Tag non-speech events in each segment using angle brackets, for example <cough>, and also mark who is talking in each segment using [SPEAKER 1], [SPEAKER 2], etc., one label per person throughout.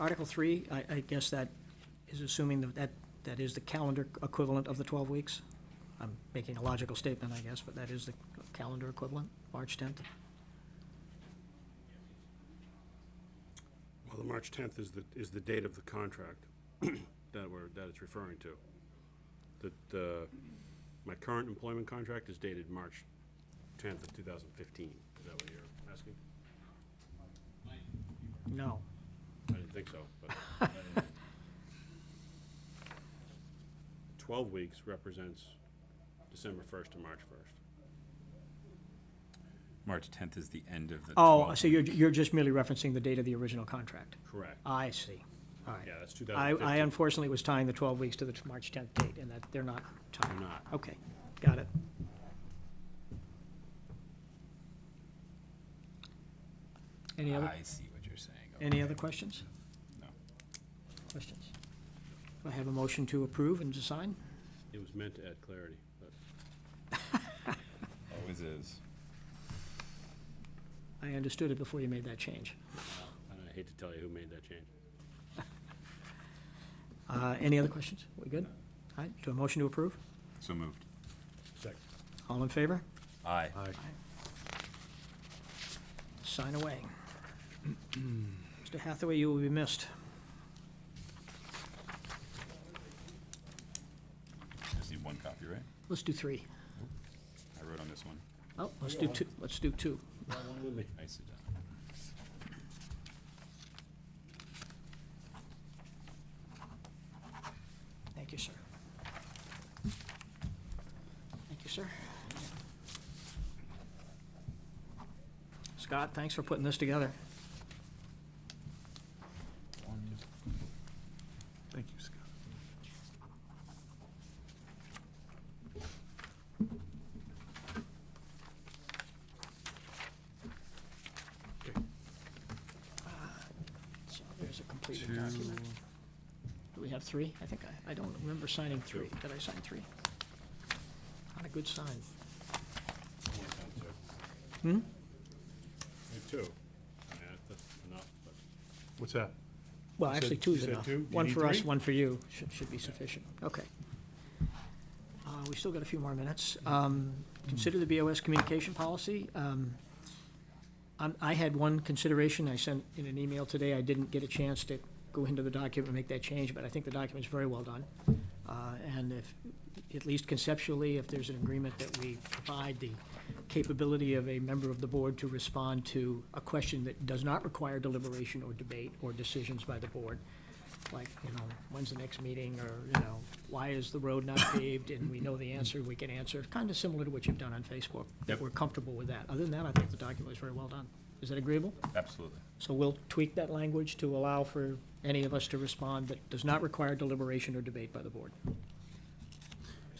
[SPEAKER 1] Article three, I, I guess that is assuming that- that, that is the calendar equivalent of the twelve weeks? I'm making a logical statement, I guess, but that is the calendar equivalent, March tenth?
[SPEAKER 2] Well, the March 10th is the, is the date of the contract <clears throat> that we're, that it's referring to. That, uh, my current employment contract is dated March 10th of 2015. Is that what you're asking?
[SPEAKER 1] No.
[SPEAKER 2] I didn't think so, but. <laughs> 12 weeks represents December 1st to March 1st.
[SPEAKER 3] March 10th is the end of the.
[SPEAKER 1] Oh,
[SPEAKER 3] 12th.
[SPEAKER 1] so you're, you're just merely referencing the date of the original contract?
[SPEAKER 2] Correct.
[SPEAKER 1] I see, all right.
[SPEAKER 2] Yeah, that's
[SPEAKER 1] I, Uh, I
[SPEAKER 2] 2015.
[SPEAKER 1] unfortunately was tying the twelve weeks to the t- March tenth date, and that, they're not tied.
[SPEAKER 2] They're not.
[SPEAKER 1] Okay, got it. Any other,
[SPEAKER 3] I see what you're saying.
[SPEAKER 1] any
[SPEAKER 3] okay.
[SPEAKER 1] other questions?
[SPEAKER 3] No.
[SPEAKER 1] Questions? Do I have a motion to approve and to sign?
[SPEAKER 2] It was meant to add clarity, but
[SPEAKER 3] Always Oh, is.
[SPEAKER 1] I understood it before you made that change.
[SPEAKER 2] I hate to tell you who made that change.
[SPEAKER 1] Uh, any other questions? We good? All right, do a motion to approve?
[SPEAKER 3] So moved.
[SPEAKER 2] Second.
[SPEAKER 1] All in favor?
[SPEAKER 3] Aye.
[SPEAKER 1] Sign away. <clears throat> Mr. Hathaway, you will be missed.
[SPEAKER 3] Just need one copy, right?
[SPEAKER 1] Let's do three.
[SPEAKER 3] I wrote on this one.
[SPEAKER 1] Oh, let's do two, let's do two.
[SPEAKER 3] Nicely done.
[SPEAKER 1] Thank you, sir. Thank you, sir. Scott, thanks for putting this together.
[SPEAKER 4] Thank you, Scott.
[SPEAKER 1] Uh, So there's a completed document. Do we have three? I think I, I don't remember signing three. Did I sign three? Not a good sign.
[SPEAKER 2] Hmm? two. I mean, that's enough, but.
[SPEAKER 4] What's that?
[SPEAKER 1] Well,
[SPEAKER 4] You said-
[SPEAKER 1] actually, two is
[SPEAKER 4] you said
[SPEAKER 1] enough.
[SPEAKER 4] two? You
[SPEAKER 1] One
[SPEAKER 4] need
[SPEAKER 1] for us,
[SPEAKER 4] three?
[SPEAKER 1] one for you, should, should be sufficient. Okay. Uh, we still got a few more minutes.
[SPEAKER 4] Mm-hmm.
[SPEAKER 1] Um, consider the BOS communication policy. Um, I'm, Um, I had one consideration, I sent in an email today, I didn't get a chance to go into the document and make that change, but I think the document's very well done. Uh, and if, at least conceptually, if there's an agreement that we provide the capability of a member of the board to respond to a question that does not require deliberation or debate or decisions by the board, like, you know, when's the next meeting, or, you know, why is the road not paved, and we know the answer, we can answer, kind of similar to what you've done on Facebook. If
[SPEAKER 3] Yep.
[SPEAKER 1] we're comfortable with that. Other than that, I think the document was very well done. Is that agreeable?
[SPEAKER 3] Absolutely.
[SPEAKER 1] So we'll tweak that language to allow for any of us to respond that does not require deliberation or debate by the board.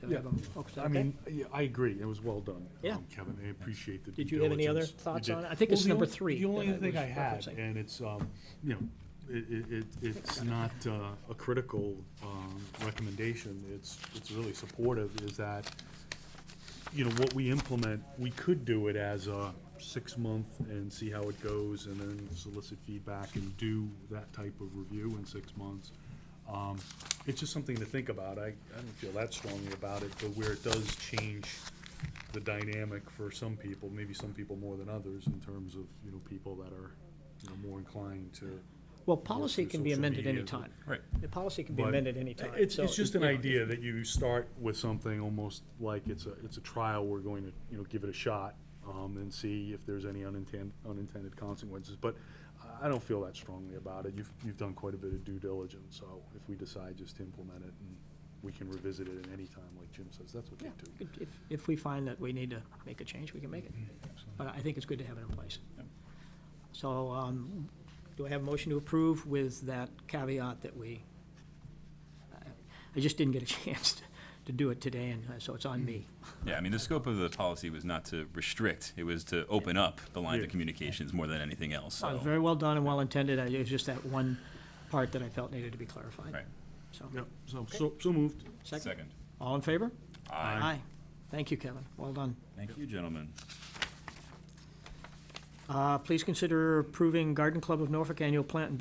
[SPEAKER 1] So we have a- oh, is that
[SPEAKER 4] I
[SPEAKER 1] okay?
[SPEAKER 4] mean, yeah, I agree, it was well done,
[SPEAKER 1] Yeah.
[SPEAKER 4] um, Kevin, I appreciate the due
[SPEAKER 1] Did you have any other
[SPEAKER 4] diligence. You
[SPEAKER 1] thoughts
[SPEAKER 4] did.
[SPEAKER 1] on it? I think it's
[SPEAKER 4] Well, the
[SPEAKER 1] number
[SPEAKER 4] only-
[SPEAKER 1] three
[SPEAKER 4] The
[SPEAKER 1] that
[SPEAKER 4] only
[SPEAKER 1] I
[SPEAKER 4] thing
[SPEAKER 1] was
[SPEAKER 4] I had,
[SPEAKER 1] referencing.
[SPEAKER 4] and it's, um, you know, it, it- it, it's not uh, a critical um, recommendation, it's, it's really supportive, is that, you know, what we implement, we could do it as a six-month and see how it goes, and then solicit feedback and do that type of review in six months. Um, It's just something to think about. I, I don't feel that strongly about it, but where it does change the dynamic for some people, maybe some people more than others, in terms of, you know, people that are, you know, more inclined to.
[SPEAKER 1] Well, policy
[SPEAKER 4] through
[SPEAKER 1] can be
[SPEAKER 4] social
[SPEAKER 1] amended
[SPEAKER 4] media.
[SPEAKER 1] any time.
[SPEAKER 3] Right.
[SPEAKER 1] The policy can be
[SPEAKER 4] But
[SPEAKER 1] amended any time.
[SPEAKER 4] It's,
[SPEAKER 1] so
[SPEAKER 4] it's just an
[SPEAKER 1] you know,
[SPEAKER 4] idea that you start with something almost like it's a, it's a trial, we're going to, you know, give it a shot, um, and see if there's any unintended, unintended consequences, but I- I don't feel that strongly about it, you've, you've done quite a bit of due diligence, so if we decide just to implement it, and we can revisit it at any time, like Jim says, that's okay
[SPEAKER 1] yeah,
[SPEAKER 4] too.
[SPEAKER 1] good. If, if we find that we need to make a change, we can make it. But I think it's good to have it in place. So, um, do I have a motion to approve with that caveat that we, I- I just didn't get a <laughs> chance to- to do it today, and uh, so it's on me.
[SPEAKER 3] Yeah, I mean, the scope of the policy was not to restrict, it was to open up the lines of
[SPEAKER 4] Yeah.
[SPEAKER 3] communications more than anything else,
[SPEAKER 1] Uh,
[SPEAKER 3] so.
[SPEAKER 1] Very well done and well intended, I- it was just that one part that I felt needed to be clarified.
[SPEAKER 3] Right.
[SPEAKER 1] So,
[SPEAKER 4] Yep, so, so, so moved.
[SPEAKER 1] second,
[SPEAKER 3] Second.
[SPEAKER 1] all in favor?
[SPEAKER 4] Aye.
[SPEAKER 1] Aye. Thank you, Kevin, well done.
[SPEAKER 3] Thank you, gentlemen.
[SPEAKER 1] Uh, Please consider approving Garden Club of Norfolk annual plant and